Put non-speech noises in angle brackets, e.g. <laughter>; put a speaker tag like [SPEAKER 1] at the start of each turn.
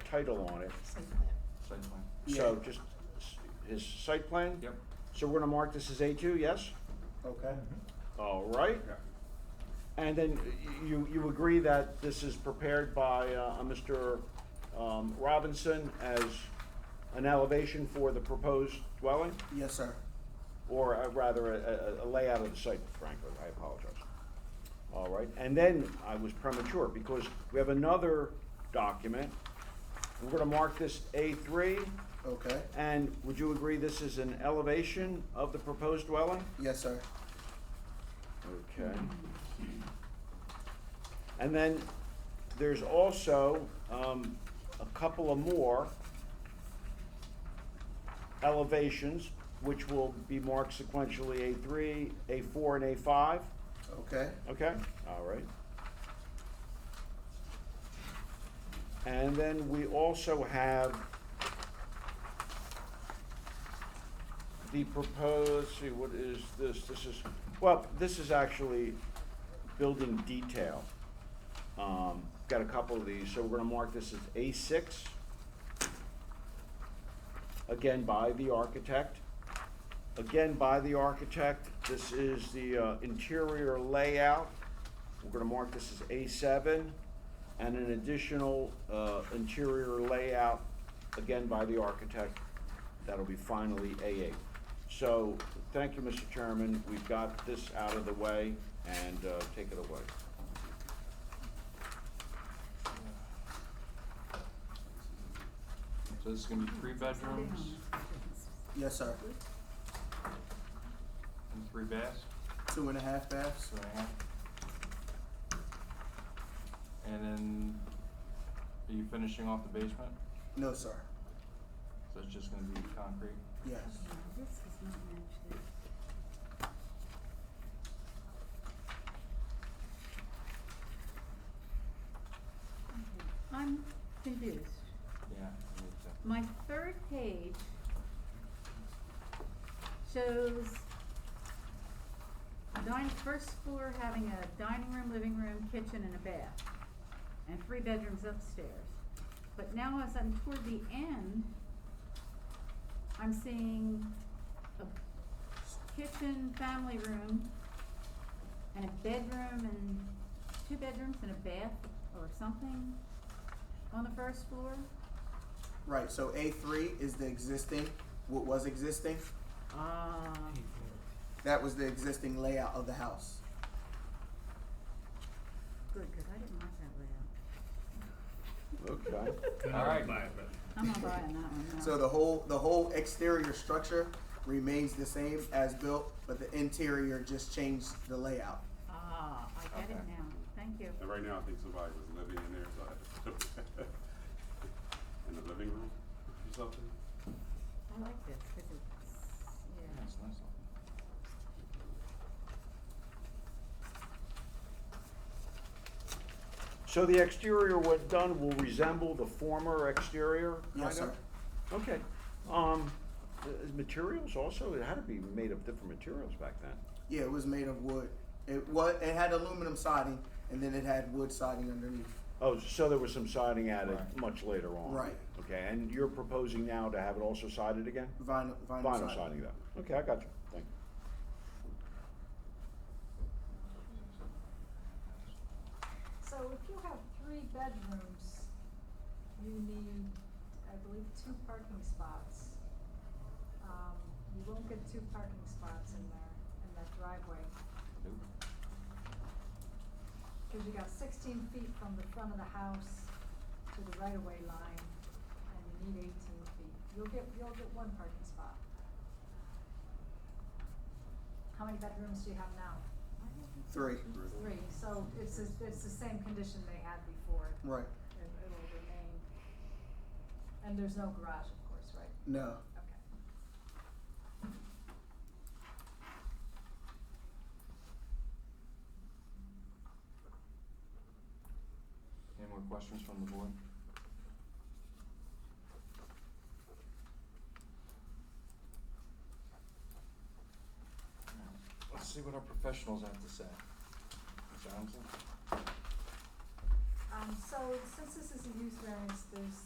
[SPEAKER 1] title on it.
[SPEAKER 2] site plan.
[SPEAKER 3] Site plan.
[SPEAKER 1] So just s- his site plan?
[SPEAKER 3] Yep.
[SPEAKER 1] So we're gonna mark this as A two, yes?
[SPEAKER 4] Okay.
[SPEAKER 1] All right. And then y- you, you agree that this is prepared by, uh, a Mr. um, Robinson as an elevation for the proposed dwelling?
[SPEAKER 4] Yes, sir.
[SPEAKER 1] Or uh, rather, a, a- a layout of the site, frankly, I apologize. All right, and then I was premature, because we have another document. We're gonna mark this A three,
[SPEAKER 4] Okay.
[SPEAKER 1] and would you agree this is an elevation of the proposed dwelling?
[SPEAKER 4] Yes, sir.
[SPEAKER 1] Okay. And then there's also, um, a couple of more elevations, which will be marked sequentially A three, A four, and A five,
[SPEAKER 4] Okay.
[SPEAKER 1] okay? All right. And then we also have the proposed, see, what is this? This is, well, this is actually building detail. Um, got a couple of these, so we're gonna mark this as A six. Again, by the architect. Again, by the architect, this is the uh, interior layout. We're gonna mark this as A seven, and an additional, uh, interior layout, again by the architect. That'll be finally A eight. So, thank you, Mr. Chairman, we've got this out of the way, and, uh, take it away.
[SPEAKER 3] So this is gonna be three bedrooms
[SPEAKER 4] Yes, sir.
[SPEAKER 3] and three baths,
[SPEAKER 4] Two and a half baths.
[SPEAKER 3] so I have. And then, are you finishing off the basement?
[SPEAKER 4] No, sir.
[SPEAKER 3] So it's just gonna be concrete?
[SPEAKER 4] Yes.
[SPEAKER 2] This is not actually. I'm confused.
[SPEAKER 3] Yeah. I need to-
[SPEAKER 2] My third page shows dining, first floor having a dining room, living room, kitchen, and a bath, and three bedrooms upstairs. But now as I'm toward the end, I'm seeing a kitchen, family room, and a bedroom, and two bedrooms and a bath or something on the first floor.
[SPEAKER 4] Right. So A3 is the existing, what was existing.
[SPEAKER 2] Ah,
[SPEAKER 4] That was the existing layout of the house.
[SPEAKER 2] good, because I didn't like that layout.
[SPEAKER 1] Okay.
[SPEAKER 3] All right.
[SPEAKER 2] <laughs> I'm not buying that one, no.
[SPEAKER 4] So the whole the whole exterior structure remains the same as built, but the interior just changed the layout.
[SPEAKER 2] Ah, I get it
[SPEAKER 3] Okay.
[SPEAKER 2] now, thank you.
[SPEAKER 5] And right now, I think somebody was living in there, so I had to <laughs> in the living room or something.
[SPEAKER 2] I like this, because it's,
[SPEAKER 3] Yeah,
[SPEAKER 2] yeah.
[SPEAKER 3] it's nice looking.
[SPEAKER 1] So the exterior, when done, will resemble the former exterior?
[SPEAKER 4] Yes,
[SPEAKER 1] kind
[SPEAKER 4] sir.
[SPEAKER 1] of? Okay. Um, uh, materials also, it had to be made of different materials back then.
[SPEAKER 4] Yeah, it was made of wood. It was it had aluminum siding, and then it had wood siding underneath.
[SPEAKER 1] Oh, so there was some siding added
[SPEAKER 3] Right.
[SPEAKER 1] much later on?
[SPEAKER 4] Right.
[SPEAKER 1] Okay, and you're proposing now to have it also sided again?
[SPEAKER 4] Vinyl vinyl,
[SPEAKER 1] Vinyl siding though. Okay, I got you. Thank you.
[SPEAKER 6] So if you have three bedrooms, you need, I believe, two parking spots. Um, you won't get two parking spots in there, in that driveway,
[SPEAKER 3] Nope.
[SPEAKER 6] cause you got sixteen feet from the front of the house to the right-of-way line, and you need eighteen feet. You'll get, you'll get one parking spot. How many bedrooms do you have now?
[SPEAKER 4] Three.
[SPEAKER 6] Three, so it's, the- it's the same condition they had before.
[SPEAKER 4] Right.
[SPEAKER 6] it, it'll remain. And there's no garage, of course, right?
[SPEAKER 4] No.
[SPEAKER 6] Okay.
[SPEAKER 3] Any more questions from the board? Alright, Let's see what our professionals have to say. Ms. Adamson?
[SPEAKER 6] Um, so since this is a use variance, there's